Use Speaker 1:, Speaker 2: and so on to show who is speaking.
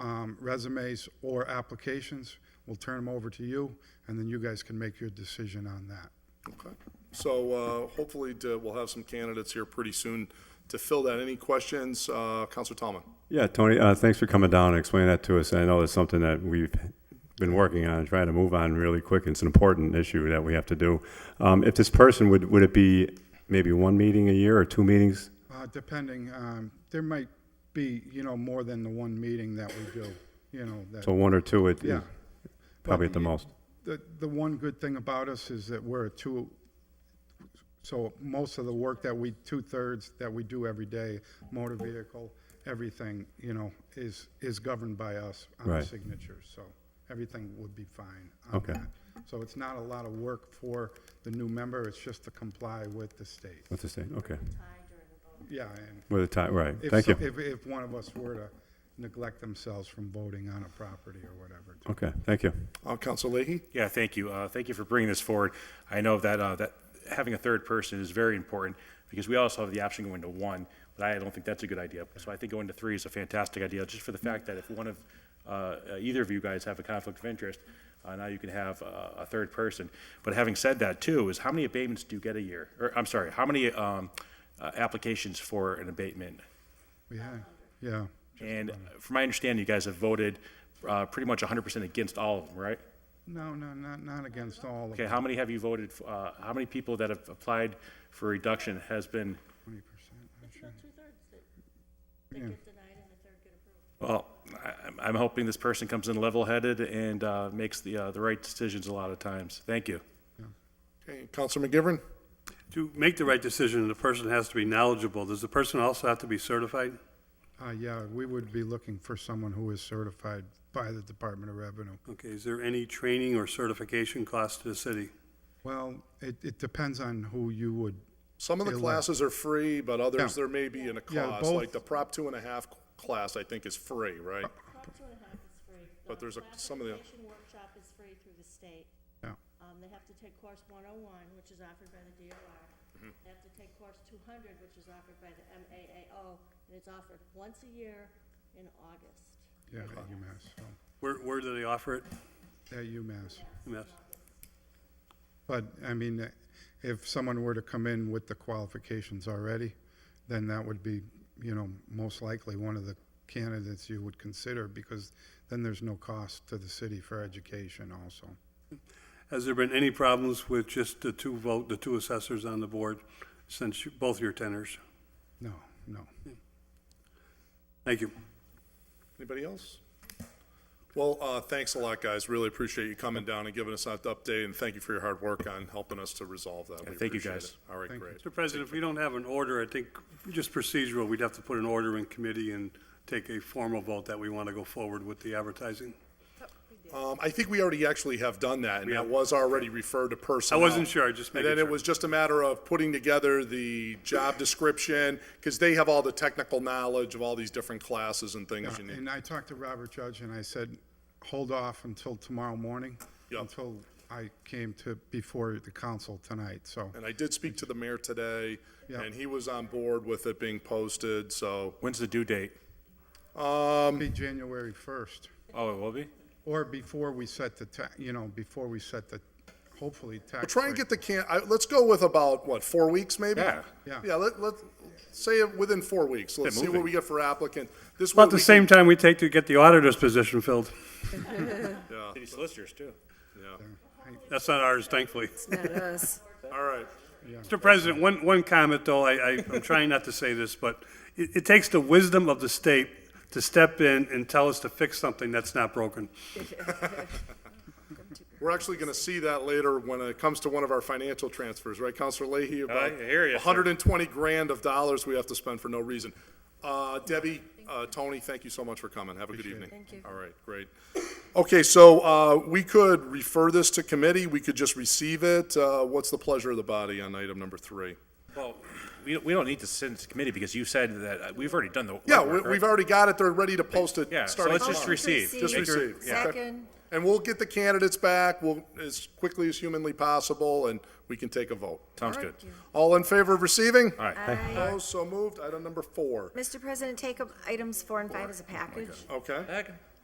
Speaker 1: um, resumes or applications. We'll turn them over to you, and then you guys can make your decision on that.
Speaker 2: Okay. So uh, hopefully to- we'll have some candidates here pretty soon to fill that. Any questions? Uh, Counselor Tomlin?
Speaker 3: Yeah, Tony, uh, thanks for coming down and explaining that to us. I know it's something that we've been working on and trying to move on really quick. It's an important issue that we have to do. Um, if this person would, would it be maybe one meeting a year or two meetings?
Speaker 1: Uh, Depending, um, there might be, you know, more than the one meeting that we do, you know, that.
Speaker 3: So one or two at
Speaker 1: Yeah.
Speaker 3: probably
Speaker 1: But
Speaker 3: at the
Speaker 1: you-
Speaker 3: most.
Speaker 1: The, the one good thing about us is that we're a two, so most of the work that we, two-thirds that we do every day, motor vehicle, everything, you know, is, is governed by us on the
Speaker 3: Right.
Speaker 1: signatures, so everything would be fine. on
Speaker 3: Okay.
Speaker 1: that. So it's not a lot of work for the new member, it's just to comply with the state.
Speaker 3: What's the state? Okay.
Speaker 1: Yeah, and
Speaker 3: With a tie, right.
Speaker 1: if,
Speaker 3: Thank you.
Speaker 1: so- if, if one of us were to neglect themselves from voting on a property or whatever. too.
Speaker 3: Okay, thank you.
Speaker 2: Uh, Counselor Leahy?
Speaker 4: Yeah, thank you. Uh, Thank you for bringing this forward. I know that, uh, that having a third person is very important because we also have the option of going to one, but I don't think that's a good idea. So I think going to three is a fantastic idea, just for the fact that if one of, uh, uh, either of you guys have a conflict of interest, uh, now you can have uh, a third person. But having said that too, is how many abatements do you get a year? Or, I'm sorry, how many um, uh, applications for an abatement?
Speaker 1: Yeah, yeah.
Speaker 4: And from my understanding, you guys have voted uh, pretty much 100% against all of them, right?
Speaker 1: No, no, not, not against all of
Speaker 4: Okay, how many have you voted, f- uh, how many people that have applied for reduction has been,
Speaker 1: twenty percent.
Speaker 5: It's about two-thirds that, that get denied and a third get approved.
Speaker 4: well, I- I'm- I'm hoping this person comes in level-headed and uh, makes the, uh, the right decisions a lot of times. Thank you.
Speaker 2: Okay. Counselor McGivern?
Speaker 6: To make the right decision, the person has to be knowledgeable. Does the person also have to be certified?
Speaker 1: Uh, yeah, we would be looking for someone who is certified by the Department of Revenue.
Speaker 6: Okay, is there any training or certification cost to the city?
Speaker 1: Well, it, it depends on who you would,
Speaker 2: Some of the classes are free, but others,
Speaker 1: Yeah.
Speaker 2: there may be in a
Speaker 1: Yeah,
Speaker 2: cost.
Speaker 1: both-
Speaker 2: Like the Prop Two and a Half class, I think is free, right?
Speaker 5: Prop two and a half is free.
Speaker 2: But there's a- some of the-
Speaker 5: Classification workshop is free through the state.
Speaker 1: yeah,
Speaker 5: Um, they have to take course one oh one, which is offered by the DOR.
Speaker 2: Mm-hmm.
Speaker 5: They have to take course two hundred, which is offered by the MAAO, and it's offered once a year in August.
Speaker 1: yeah, at UMass, so,
Speaker 6: Where, where do they offer it?
Speaker 1: at UMass.
Speaker 6: Yes.
Speaker 1: But, I mean, uh, if someone were to come in with the qualifications already, then that would be, you know, most likely one of the candidates you would consider, because then there's no cost to the city for education also.
Speaker 6: Has there been any problems with just the two vote, the two assessors on the board since you- both your tenors?
Speaker 1: No, no.
Speaker 6: Thank you.
Speaker 2: Anybody else? Well, uh, thanks a lot, guys. Really appreciate you coming down and giving us that update, and thank you for your hard work on helping us to resolve that. We
Speaker 4: thank you,
Speaker 2: appreciate
Speaker 4: guys.
Speaker 2: it. All right, great.
Speaker 6: Mr. President, if we don't have an order, I think just procedural, we'd have to put an order in committee and take a formal vote that we want to go forward with the advertising.
Speaker 2: Um, I think we already actually have done that, and that was already referred to personnel.
Speaker 6: wasn't sure, I just
Speaker 2: And
Speaker 6: making
Speaker 2: then it
Speaker 6: sure.
Speaker 2: was just a matter of putting together the job description, because they have all the technical knowledge of all these different classes and things you need.
Speaker 1: And I talked to Robert Judge and I said, hold off until tomorrow morning.
Speaker 2: Yeah.
Speaker 1: Until I came to, before the council tonight, so.
Speaker 2: And I did speak to the mayor today,
Speaker 1: Yeah.
Speaker 2: and he was on board with it being posted, so,
Speaker 4: When's the due date?
Speaker 2: Um,
Speaker 1: It'll Be January first,
Speaker 4: Oh, it will be?
Speaker 1: or before we set the ta, you know, before we set the, hopefully, tax.
Speaker 2: try and
Speaker 1: rate.
Speaker 2: get the can, I, let's go with about, what, four weeks maybe?
Speaker 4: Yeah.
Speaker 1: Yeah.
Speaker 2: Yeah, let, let, say it within four weeks, let's see what
Speaker 4: moving.
Speaker 2: we get for applicant. This way
Speaker 6: About the
Speaker 2: we
Speaker 6: same
Speaker 2: can-
Speaker 6: time we take to get the auditor's position filled.
Speaker 4: City solicitors, too.
Speaker 6: That's not ours, thankfully.
Speaker 2: All right,
Speaker 6: Mr. President, one, one comment, though, I, I, I'm trying not to say this, but it, it takes the wisdom of the state to step in and tell us to fix something that's not broken.
Speaker 2: we're actually gonna see that later when it comes to one of our financial transfers, right, Counselor Leahy? About
Speaker 4: Oh, I hear ya, sir.
Speaker 2: hundred and twenty grand of dollars we have to spend for no reason. Uh, Debbie, uh, Tony, thank you so much for coming, have a good evening. Thank you. All right, great. Okay, so, uh, we could refer this to committee, we could just receive it, uh, what's the pleasure of the body on item number three?
Speaker 4: Well, we, we don't need to send it to committee because you said that, uh, we've already done the.
Speaker 2: Yeah, we,
Speaker 4: legwork, right?
Speaker 2: we've already got it, they're ready to post it,
Speaker 4: Yeah, so
Speaker 2: starting
Speaker 4: let's
Speaker 2: tomorrow.
Speaker 4: just receive.
Speaker 2: Just
Speaker 4: Make your-
Speaker 2: receive.
Speaker 4: yeah.
Speaker 2: Second. And we'll get the candidates back, we'll, as quickly as humanly possible, and we can take a vote.
Speaker 4: Sounds good.
Speaker 2: All in favor of receiving?
Speaker 4: All right.
Speaker 2: Opposed, so moved. Item number four.
Speaker 7: Mr. President, take up items four and five as a package.
Speaker 2: Okay.